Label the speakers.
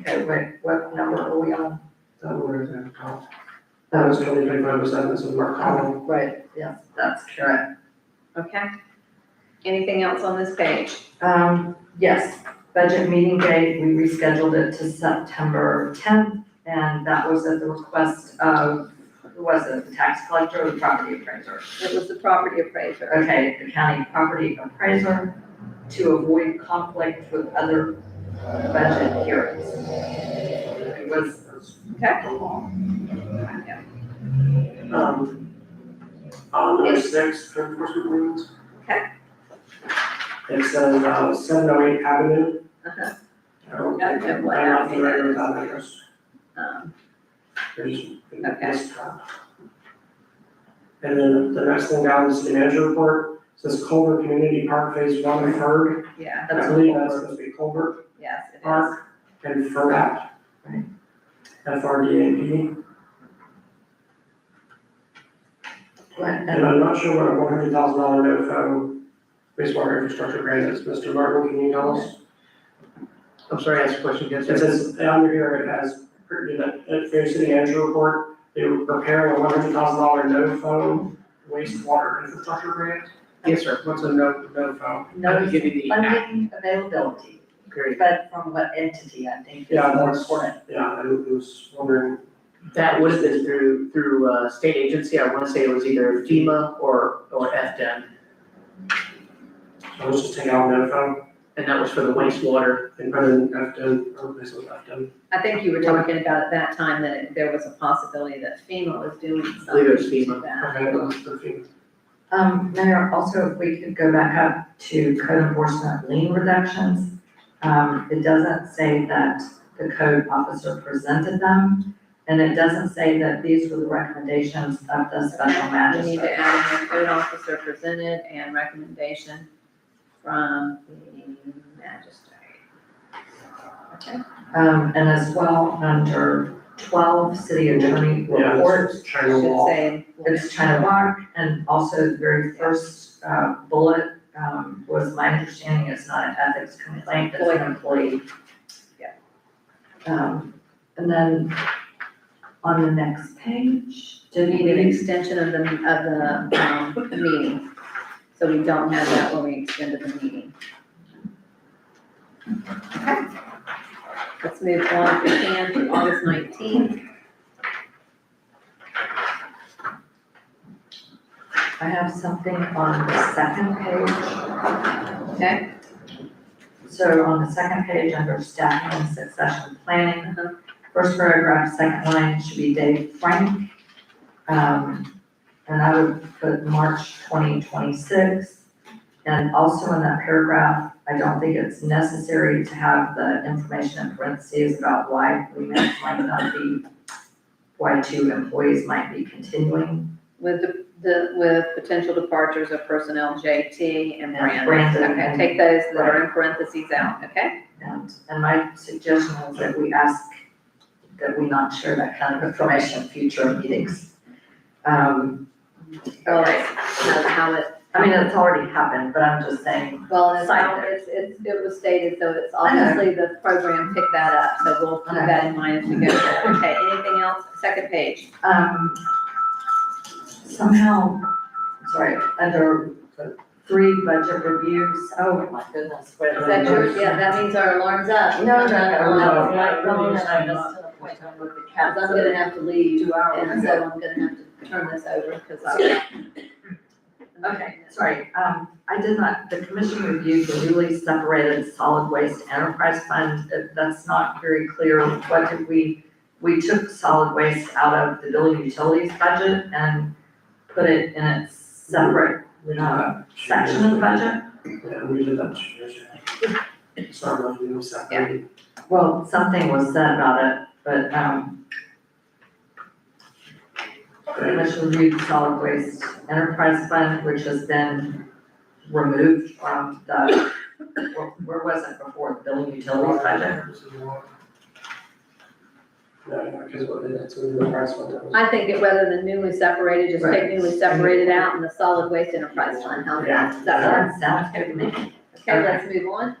Speaker 1: Okay, wait, what number are we on?
Speaker 2: That one is gonna cost. That was twenty twenty-five percent, this is Mark Collins.
Speaker 1: Right, yes, that's correct.
Speaker 3: Okay. Anything else on this page?
Speaker 1: Um, yes, budget meeting date, we rescheduled it to September tenth, and that was at the request of, who was it, the tax collector or the property appraiser?
Speaker 3: It was the property appraiser.
Speaker 1: Okay, the county property appraiser to avoid conflict with other budget hearings. It was.
Speaker 3: Okay.
Speaker 2: The law.
Speaker 3: Yeah.
Speaker 2: Um, uh, number six, code enforcement agreements.
Speaker 3: Okay.
Speaker 2: It says, uh, seven oh eight Avenue.
Speaker 3: Uh-huh.
Speaker 2: I don't
Speaker 3: Okay,
Speaker 2: think I'm
Speaker 3: what
Speaker 2: not
Speaker 3: avenue
Speaker 2: familiar
Speaker 3: that
Speaker 2: with
Speaker 3: is?
Speaker 2: that address.
Speaker 3: Um,
Speaker 2: There's-
Speaker 3: Okay.
Speaker 2: it's, uh, And then the next thing down is the manager report, says Culver Community Park Phase One and Third.
Speaker 3: Yeah,
Speaker 2: I believe that's supposed to be Culver.
Speaker 3: yes, it is.
Speaker 2: Park and FRDAP.
Speaker 1: Right.
Speaker 2: FRDAP, and
Speaker 1: And
Speaker 2: I'm not sure what a one hundred thousand dollar no phone wastewater infrastructure grant is, Mr. Martin, can you tell us?
Speaker 4: I'm sorry, ask a question again,
Speaker 2: It
Speaker 4: sir.
Speaker 2: says, on here, it has, written in the- at Fair City Manager Report, they were preparing a one hundred thousand dollar no phone wastewater infrastructure grant.
Speaker 4: Yes, sir, what's a no, no phone? I'll
Speaker 1: notice
Speaker 4: give you the app,
Speaker 1: funding availability,
Speaker 4: great.
Speaker 1: but from what entity, I think is
Speaker 2: Yeah,
Speaker 1: more
Speaker 2: that's-
Speaker 1: important.
Speaker 2: Yeah, I was wondering,
Speaker 4: That would have been through, through uh state agency, I wanna say it was either FEMA or, or E FDM,
Speaker 2: so let's just take out no phone
Speaker 4: and that was for the wastewater.
Speaker 2: and put in Afton, or replace it with Afton.
Speaker 3: I think you were talking about at that time that it- there was a possibility that FEMA was doing
Speaker 4: believe it was
Speaker 3: something to that.
Speaker 2: Okay, that's the thing.
Speaker 1: Um, Mayor, also if we could go back up to code enforcement lien reductions. Um, it doesn't say that the code officer presented them, and it doesn't say that these were the recommendations of the special
Speaker 3: We need to
Speaker 1: magistrate.
Speaker 3: add in the code officer presented and recommendation from the magistrate. Okay,
Speaker 1: Um, and as well, under twelve, city attorney
Speaker 2: Yeah,
Speaker 1: report,
Speaker 2: it's China
Speaker 3: should
Speaker 2: wall.
Speaker 3: say.
Speaker 1: it's China Rock, and also the very first, uh, bullet, um, was my understanding it's not an ethics complaint, it's an employee.
Speaker 3: Yeah.
Speaker 1: Um, and then on the next page,
Speaker 3: To
Speaker 1: did
Speaker 3: need an
Speaker 1: we,
Speaker 3: extension of the, of the, um, meeting. So we don't have that when we extended the meeting. Okay. Let's move on, if we can, to August nineteenth.
Speaker 1: I have something on the second page.
Speaker 3: Okay.
Speaker 1: So on the second page, under staffing and succession planning,
Speaker 3: Uh-huh.
Speaker 1: First paragraph, second line should be Dave Frank. Um, and I would put March twenty twenty-six. And also in that paragraph, I don't think it's necessary to have the information in parentheses about why we might might not be, why two employees might be continuing.
Speaker 3: With the, the, with potential departures of personnel, JT and Brandon.
Speaker 1: And Brandon
Speaker 3: Okay,
Speaker 1: and-
Speaker 3: take those that are in parentheses out, okay?
Speaker 1: And, and my suggestion is that we ask that we not share that kind of information in future meetings. Um,
Speaker 3: All right, so how it,
Speaker 1: I mean, it's already happened, but I'm just saying,
Speaker 3: well, it's,
Speaker 1: Side
Speaker 3: how
Speaker 1: note.
Speaker 3: it's, it's, it was stated, so it's
Speaker 1: I know.
Speaker 3: obviously the program picked that up, so we'll keep
Speaker 1: Okay.
Speaker 3: that in mind as we go. forward. Okay, anything else? Second page.
Speaker 1: um, somehow, sorry, under three budget reviews, oh my goodness, wait.
Speaker 3: Is that yours? Yeah, that means our alarm's up.
Speaker 1: No, no, no,
Speaker 3: Um,
Speaker 1: no,
Speaker 3: I'm
Speaker 1: no, no, no,
Speaker 3: just
Speaker 1: no, no, with the
Speaker 3: I'm
Speaker 1: cats.
Speaker 3: gonna have to leave,
Speaker 1: Two hours.
Speaker 3: and so I'm gonna have to turn this over, cause I.
Speaker 1: Okay, sorry, um, I did not, the commission reviewed the newly separated solid waste enterprise fund, That- that's not very clear, what did we, we took solid waste out of the building utilities budget and put it in its separate
Speaker 2: We did that.
Speaker 1: uh, section of the budget?
Speaker 2: Yeah, we did that two years ago. Sorry, I'm doing something.
Speaker 1: Well, something was said about it, but, um, pretty much reviewed solid waste enterprise fund, which has been removed from the, where, where was it before, the building utilities budget?
Speaker 2: No, no, because what, that's what the price went down.
Speaker 3: I think it whether the newly separated, just take
Speaker 1: Right.
Speaker 3: newly separated out and the solid waste enterprise fund, how's that? Is that
Speaker 1: That sounds good to me.
Speaker 3: right? Okay, let's move on.